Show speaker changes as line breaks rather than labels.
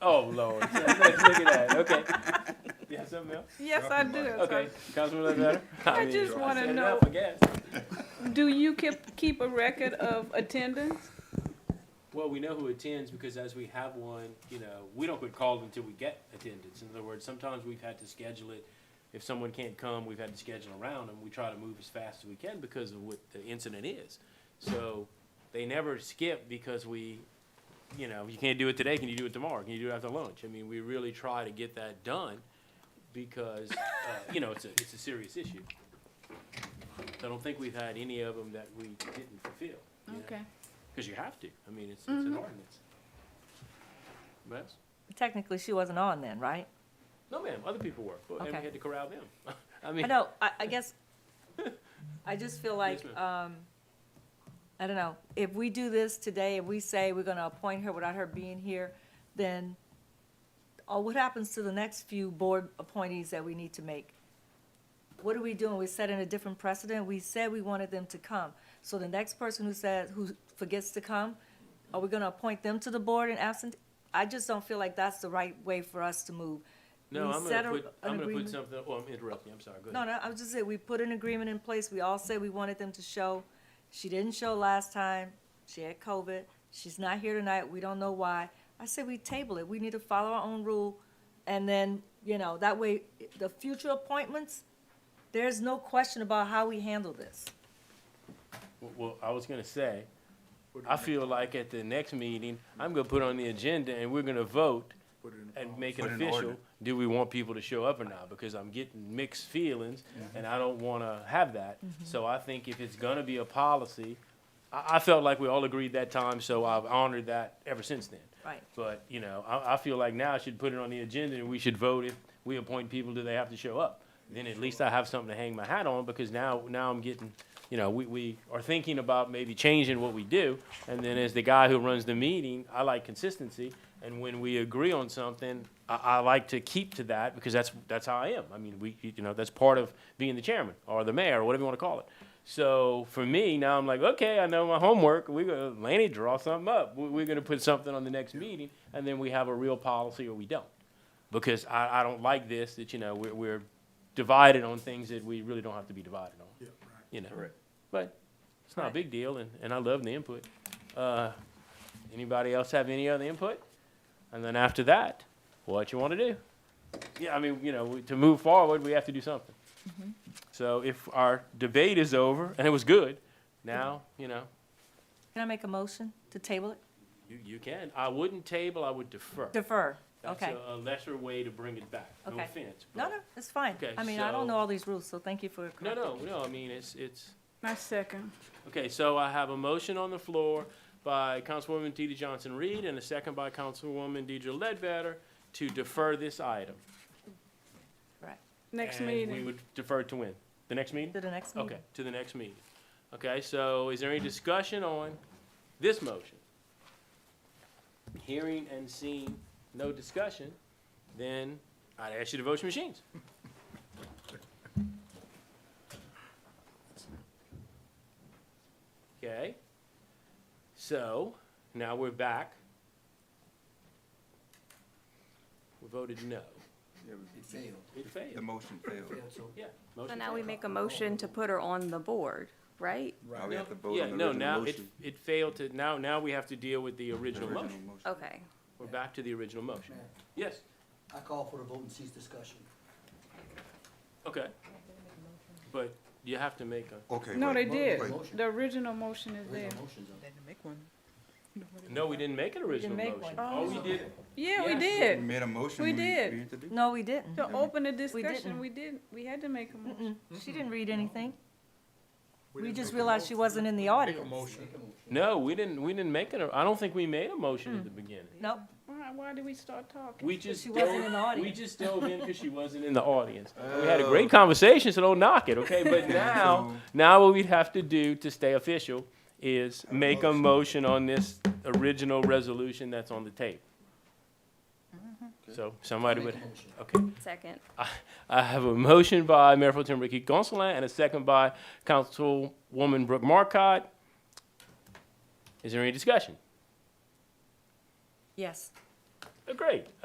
Oh, Lord. Look at that. Okay. You have something else?
Yes, I do.
Okay. Councilman Ledbetter?
I
mean,
just wanna
said
know-
enough, I guess.
Do you keep, keep a record of attendance?
Well, we know who attends because as we have one, you know, we don't get called until we get attendance. In other words, sometimes we've had to schedule it. If someone can't come, we've had to schedule around and we try to move as fast as we can because of what the incident is. So they never skip because we, you know, you can't do it today, can you do it tomorrow? Can you do it after lunch? I mean, we really try to get that done because, uh, you know, it's a, it's a serious issue. I don't think we've had any of them that we didn't fulfill. you know? Because you have to. I mean, it's,
Mm-hmm.
it's an ordinance. Yes?
Technically, she wasn't on then, right?
No, ma'am, other people were, but- and we
Okay.
had to corral them. I mean,
I know, I, I guess, I just feel like,
Yes,
um, I don't know, if we do this today and we say we're gonna appoint her without her being here, then, oh, what happens to the next few board appointees that we need to make? What are we doing? We're setting a different precedent. We said we wanted them to come. So the next person who says, who forgets to come, are we gonna appoint them to the board in absent? I just don't feel like that's the right way for us to move.
no,
we
I'm
set
gonna
a-
put,
an
I'm gonna put
agreement.
something, oh, I'm interrupting, I'm sorry, go
No,
ahead.
no, I was just saying, we put an agreement in place, we all said we wanted them to show. She didn't show last time, she had COVID, she's not here tonight, we don't know why. I said we table it, we need to follow our own rule, and then, you know, that way, the future appointments, there's no question about how we handle this.
Well- Well, I was gonna say, I feel like at the next meeting, I'm gonna put on the agenda and we're gonna vote and make it
Put an
official,
ordinance.
do we want people to show up or not? Because I'm getting mixed feelings and I don't wanna have that.
Mm-hmm.
So I think if it's gonna be a policy, I, I felt like we all agreed that time, so I've honored that ever since then.
Right.
But, you know, I, I feel like now I should put it on the agenda and we should vote if we appoint people, do they have to show up? Then at least I have something to hang my hat on because now, now I'm getting, you know, we, we are thinking about maybe changing what we do. And then as the guy who runs the meeting, I like consistency. And when we agree on something, I, I like to keep to that because that's, that's how I am. I mean, we, you know, that's part of being the chairman or the mayor or whatever you want to call it. So for me, now I'm like, okay, I know my homework. We're going to, Lanny, draw something up. We- We're going to put something on the next meeting, and then we have a real policy or we don't. Because I, I don't like this, that, you know, we're, we're divided on things that we really don't have to be divided on, you know? But it's not a
Right.
big deal, and, and I love the input. Uh, anybody else have any other input? And then after that, what you want to do? Yeah, I mean, you know, we- to move forward, we have to do something. So if our debate is over, and it was good, now, you know,
Can I make a motion to table it?
you, you can. I wouldn't table, I would defer.
Defer,
That's
okay.
a- a lesser way to bring it back. No
Okay.
offense.
No,
but-
no, it's fine.
Okay,
I mean, I don't
so-
know all these rules, so thank you for correcting.
No, no, no, I mean, it's, it's,
My second.
okay, so I have a motion on the floor by Councilwoman DeeDee Johnson-Reed and a second by Councilwoman Deidre Ledbetter to defer this item.
Right,
Next
And we
meeting.
would defer to when? The next meeting?
to the next meeting.
Okay, to the next meeting. Okay, so is there any discussion on this motion? Hearing and seeing no discussion, then I'd ask you to vote your machines. Okay, so now we're back. We voted no.
It failed.
It
The
failed.
motion failed.
Yeah.
So
motion
now we
failed.
make a motion to put her on the board, right?
Now we have to vote
Yeah,
on the
no,
original
now it,
motion.
it failed to, now, now we have to deal with the
The
original
original
motion.
motion.
Okay.
We're back to the original motion.
Mayor,
Yes,
I call for a vote and cease discussion.
okay. But you have to make a,
Okay.
Oh. No, they
wait,
did.
wait.
The original motion is there.
Original motions up.
no, we didn't make an original
make
motion.
one. Oh.
All we did,
Yeah,
Yes.
we
Mm-hmm.
We
did.
made a motion.
We did.
need to do-
No, we didn't.
To open the
We
discussion,
didn't.
we didn't, we had to make a motion.
Mm-mm. She didn't read anything. We just realized she wasn't in the audience.
Make a motion.
no, we didn't, we didn't make an, I don't think we made a motion at the beginning.
Nope,
Why, why did we start talking?
We just
Hmm. she wasn't
dove-
in the
We
audience.
just dove in because she wasn't in the audience. We had a great
Oh.
conversation, so don't knock it, okay? But now, now what we'd have to do to stay official is make a motion on this original resolution that's on the tape. So somebody
Make
would,
a motion.
okay.
Second.
I have a motion by Mayor Pro Tem Ricky Gonsalas and a second by Councilwoman Brooke Marcotte. Is there any discussion?
yes.
Oh, Great.